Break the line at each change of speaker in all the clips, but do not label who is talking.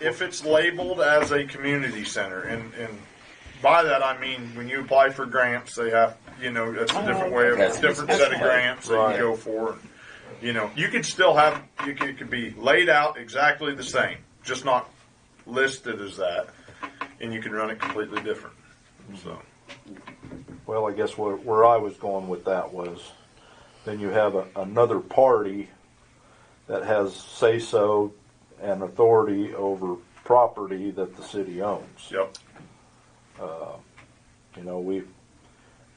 if it's labeled as a community center, and, and by that I mean when you apply for grants, they have, you know, that's a different way of,
That's-
different
that's
set of
right.
grants that you
Right.
go for. You know, you could still have, you could, it could be laid out exactly the same, just not listed as that, and you can run it completely different, so.
Well, I guess where, where I was going with that was, then you have a, another party that has say-so and authority over property that the city owns.
Yep,
You know, we,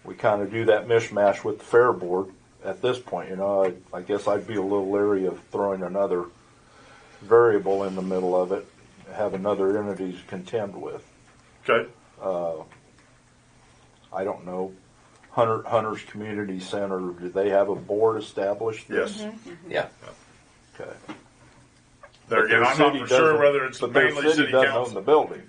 we kind of do that mishmash with the fair board at this point, you know, I, I guess I'd be a little leery of throwing another variable in the middle of it, have another entity to contend with.
okay,
I don't know, Hunter, Hunter's Community Center, do they have a board established?
yes.
Mm-hmm. Yeah.
Okay.
There again,
Their
I'm not
city
for sure
doesn't-
whether it's
but their
mainly city
doesn't Own the
council.
building.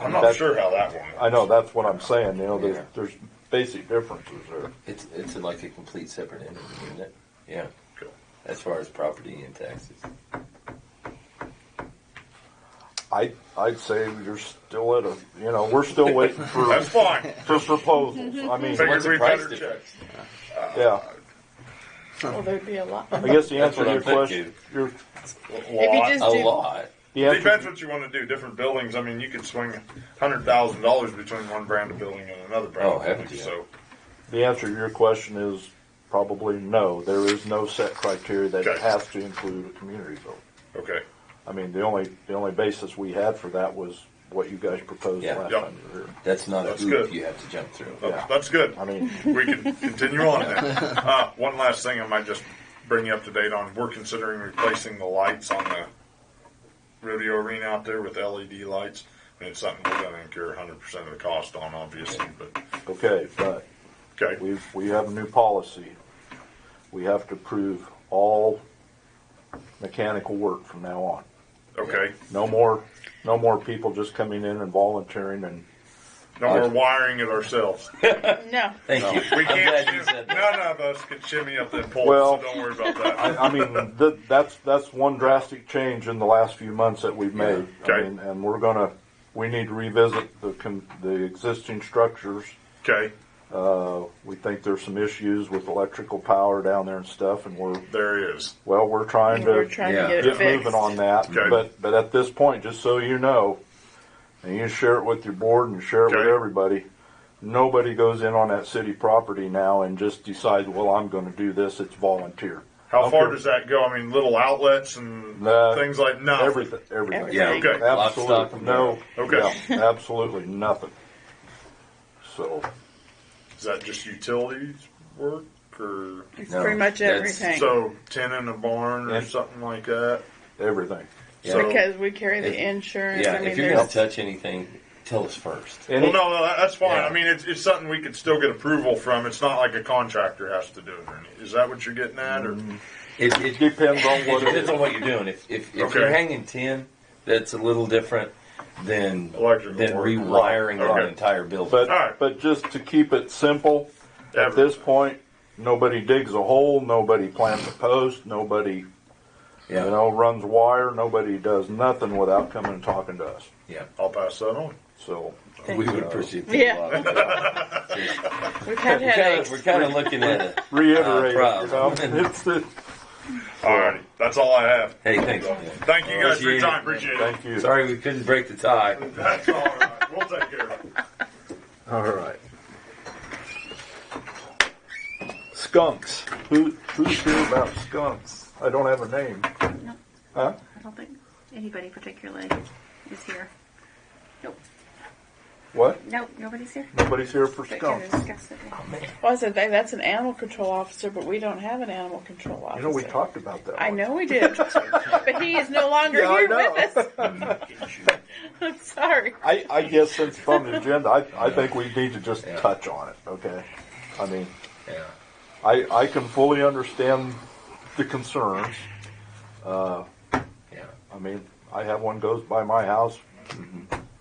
I'm not
That's-
sure how that one.
I know, that's what I'm saying, you know,
Yeah.
there's, there's basic differences there.
It's, it's like a complete separate entity, isn't it? Yeah,
Cool.
as far as property and taxes.
I, I'd say you're still at a, you know, we're still waiting for,
That's fine.
for proposals, I mean,
Figured
What's the
we
price
better check.
difference?
yeah.
Well, there'd be a lot.
I guess the
That's
answer to
what
your
I'm
question, your,
If you just
A
do-
lot.
the answer,
Depends what you want to do. Different buildings. I mean, you could swing hundred thousand dollars between one brand of building and another brand.
Oh,
of
heaven
building,
to
So
the answer to your question is probably no. There is no set criteria that
Okay.
has to include a community building.
okay,
I mean, the only, the only basis we had for that was what you guys proposed
Yeah.
last
Yep.
time you were here.
That's not a
That's
hoop
good. Oh.
you have to jump through.
Well,
Yeah.
that's good.
I mean,
we can continue on then. Uh, one last thing, I might just bring you up to date on. We're considering replacing the lights on the rodeo arena out there with LED lights. And it's something we're going to incur hundred percent of the cost on, obviously. But
okay, but
okay,
We've, we have a new policy. We have to prove all mechanical work from now on.
okay.
No more, no more people just coming in and volunteering and,
No, we're wiring it ourselves.
No.
Thank you.
We
I'm
can't.
glad you
shim-
said that.
None of us can shimmy up that pole,
Well-
so don't worry about that.
I, I mean, th that's, that's one drastic change in the last few months that we've made. I
Okay.
mean, And we're gonna, we need to revisit the, con- the existing structures.
Okay,
Uh, we think there's some issues with electrical power down there and stuff and we're,
there he is.
well, we're trying to.
We're trying
Yeah.
to get it
get
fixed.
moving on that.
Okay.
But but at this point, just so you know, and you share it with your board and share it with
Okay.
everybody. Nobody goes in on that city property now and just decides, well, I'm going to do this. It's volunteer.
How
Okay.
far does that go? I mean, little outlets and
Nah.
things like no.
Everything, everything.
Yeah.
Everything.
Okay.
Lock, stock,
Absolutely
and
no.
barrel. Okay.
yeah, absolutely nothing. So
Is that just utilities work or
It's
No,
pretty much
that's-
everything.
so tenant a barn or
Yeah.
something like that?
everything.
Yeah.
because we carry the
If-
insurance.
Yeah,
I mean,
if you're gonna
there's,
touch anything, tell us first.
Any-
well, no, no, that's fine.
Yeah.
I mean, it's, it's something we could still get approval from. It's not like a contractor has to do it. Or anything. Is that what you're getting at? Or
It, it, it
depends on what it
depends
is.
on what you're doing. If, if, if
Okay.
you're hanging tin, that's a little different than,
Electrical
than
work.
rewiring an
Okay.
entire building.
But
All right.
but just to keep it simple, at
Everything.
this point, nobody digs a hole. Nobody plants a post. Nobody
yeah,
You know, runs wire. Nobody does nothing without coming and talking to us.
yeah.
I'll pass that on.
So,
We would appreciate that
Yeah.
a lot. Yeah.
we've had
We're kind of,
headaches.
we're kind of looking at it.
reiterate,
Uh,
you know,
problem.
it's the,
All righty, that's all I have.
Hey, thanks. man.
Thank you guys for
Appreciate it.
your time. Appreciate it.
thank you.
Sorry we couldn't break the tie.
That's all right. We'll take care of it.
All right. Skunks. Who, who's here about skunks? I don't have a name. Huh?
I don't think anybody particularly is here. Nope,
What?
nope, nobody's here.
Nobody's here for
But to
skunks.
discuss it.
Well, I said that- that's an animal control officer, but we don't have an animal control officer.
You know, we talked about that.
I
one.
know we did, but he is no longer
Yeah, I
here
know.
with us. I'm sorry.
I, I guess since it's on the agenda, I, I think we need to just
Yeah.
touch on it, okay? I mean,
Yeah.
I, I can fully understand the concerns.
Yeah.
I mean, I have one goes by my house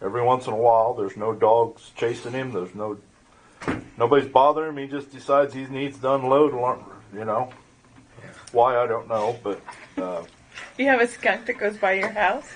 every once in a while. There's no dogs chasing him. There's no nobody's bothering him. He just decides he needs to unload. You know why I don't know, but uh,
You have a skunk that goes by your house.